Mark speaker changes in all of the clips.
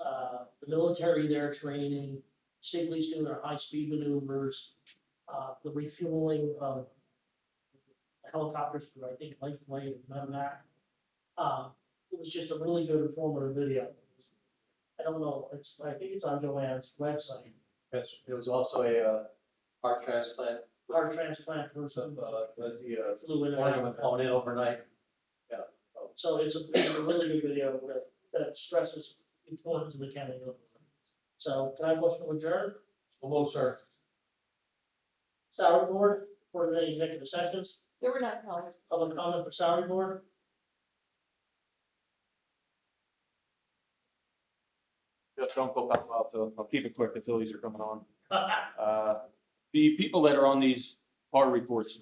Speaker 1: uh, the military there training, state police doing their high-speed maneuvers, uh, the refueling of helicopters for, I think, life flight and none of that. Uh, it was just a really good informative video. I don't know, it's, I think it's on Joanne's website,
Speaker 2: Yes, there was also a, uh, heart transplant,
Speaker 1: heart transplant person
Speaker 2: some, uh, the,
Speaker 1: flew in
Speaker 2: uh,
Speaker 1: and out.
Speaker 2: organ went flown in overnight.
Speaker 1: So it's a, it's a really good video that, that stresses importance of the county. government. So can I motion to adjourn?
Speaker 2: Hello, sir.
Speaker 1: Salary board, board of any executive sessions,
Speaker 3: There were not held.
Speaker 1: public comment for salary board?
Speaker 4: Just don't go back out, so I'll keep it quick, the Phillies are coming on. Uh, The people that are on these par reports,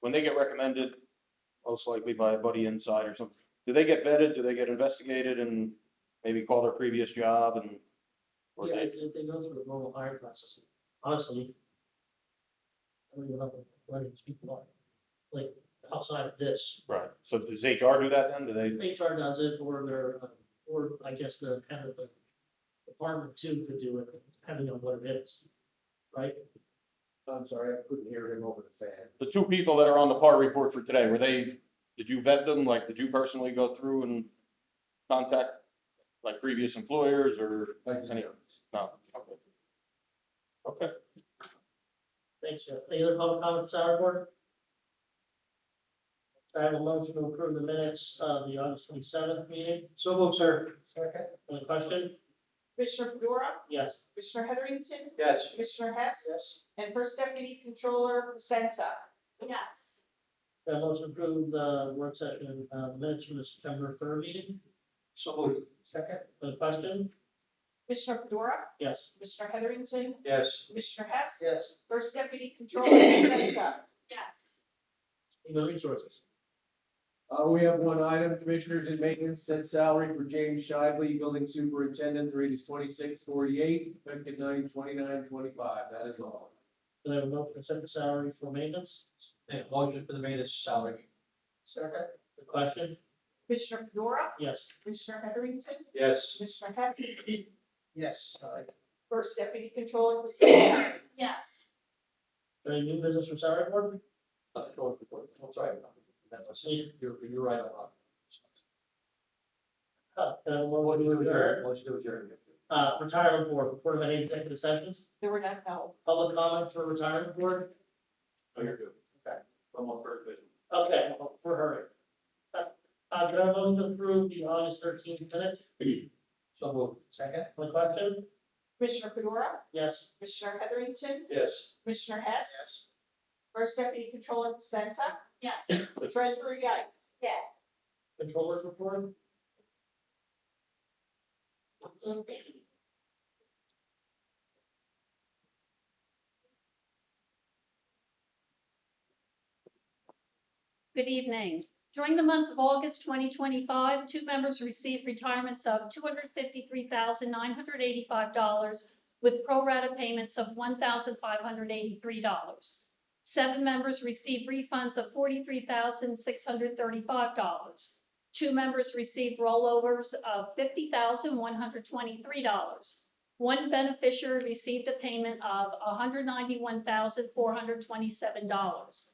Speaker 4: when they get recommended, most likely by a buddy inside or something, do they get vetted, do they get investigated and maybe call their previous job and? or
Speaker 1: Yeah,
Speaker 4: they-
Speaker 1: if if they go through the normal hiring process, honestly. I don't even know what these people are, like, outside of this,
Speaker 4: Right, so does HR do that then? Do they,
Speaker 1: HR does it, or their, uh, or I guess the head of the department too could do it, depending on what it is, right?
Speaker 2: I'm sorry, I couldn't hear him over the fan.
Speaker 4: the two people that are on the par report for today, were they, did you vet them? Like, did you personally go through and contact like previous employers or any? No, okay. Okay.
Speaker 1: Thanks, Jeff. Any other public comments, Sarah Board? I have a motion to approve the minutes of the August twenty seventh meeting.
Speaker 2: So, hello, sir.
Speaker 1: Second. Any question?
Speaker 3: Commissioner Fedora,
Speaker 1: Yes.
Speaker 3: Commissioner Heatherington,
Speaker 2: Yes.
Speaker 3: Commissioner Hess,
Speaker 1: Yes.
Speaker 3: and First Deputy Controller Pacenta.
Speaker 5: Yes,
Speaker 1: I motion to approve the work session uh, minutes from the September third meeting.
Speaker 2: So Second.
Speaker 1: Any question?
Speaker 3: Commissioner Fedora,
Speaker 1: Yes.
Speaker 3: Commissioner Heatherington,
Speaker 2: Yes.
Speaker 3: Commissioner Hess.
Speaker 2: Yes.
Speaker 3: First Deputy Controller Pacenta.
Speaker 5: yes.
Speaker 1: Human Resources.
Speaker 6: Uh, we have one item, commissioners in maintenance, set salary for James Shively, building superintendent, the rate is twenty-six forty-eight, effective nine twenty-nine twenty-five, that is all.
Speaker 1: Do I have a motion to set the salary for maintenance?
Speaker 2: And motion for the maintenance salary. Second.
Speaker 1: The question?
Speaker 3: Commissioner Fedora,
Speaker 1: Yes.
Speaker 3: Commissioner Heatherington,
Speaker 2: Yes.
Speaker 3: Commissioner Hess,
Speaker 2: Yes.
Speaker 3: First Deputy Controller Pacenta.
Speaker 5: Yes.
Speaker 1: Any new business from salary board?
Speaker 2: I'm sorry. That was-
Speaker 1: Motion
Speaker 2: You're, you're right on.
Speaker 1: to adjourn.
Speaker 2: Motion to adjourn.
Speaker 1: Uh, Retirement Board, report of any executive sessions?
Speaker 3: There were not held.
Speaker 1: Public comment for Retirement Board?
Speaker 2: Oh, you're good. Okay. One more for it.
Speaker 1: Okay, well, we're hurrying. Uh, Uh, can I motion to approve the August thirteenth minutes?
Speaker 2: So moved. Second.
Speaker 1: Any question?
Speaker 3: Commissioner Fedora,
Speaker 1: Yes.
Speaker 3: Commissioner Heatherington,
Speaker 2: Yes.
Speaker 3: Commissioner Hess, First Deputy Controller Pacenta,
Speaker 5: Yes.
Speaker 3: Treasurer Yikes. Yeah.
Speaker 1: Controllers report?
Speaker 5: Good evening. During the month of August 2025, two members received retirements of $253,985 with pro-rata payments of $1,583. Seven members received refunds of $43,635. Two members received rollovers of $50,123. One beneficiary received a payment of $191,427.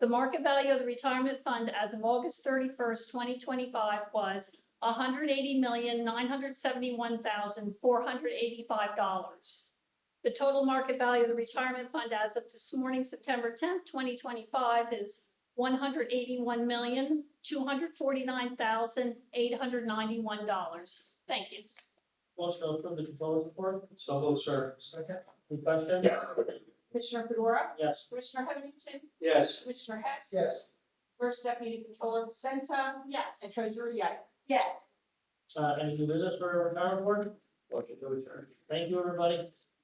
Speaker 5: The market value of the retirement fund as of August thirty-first, twenty twenty-five was hundred eighty million, nine hundred seventy-one thousand, four hundred eighty-five dollars. The total market value of the retirement fund as of this morning, September tenth, twenty twenty-five is one hundred eighty-one million, two hundred forty-nine thousand, eight hundred ninety-one dollars. Thank you.
Speaker 1: Motion to approve the controllers report?
Speaker 2: So moved, sir. Second.
Speaker 1: Any question?
Speaker 3: Commissioner Fedora,
Speaker 1: Yes.
Speaker 3: Commissioner Heatherington,
Speaker 2: Yes.
Speaker 3: Commissioner Hess.
Speaker 2: Yes.
Speaker 3: First Deputy Controller Pacenta,
Speaker 5: Yes.
Speaker 3: and Treasurer Yap. Yes.
Speaker 1: Uh, any new business for our retirement board?
Speaker 2: Motion to adjourn.
Speaker 1: Thank you, everybody.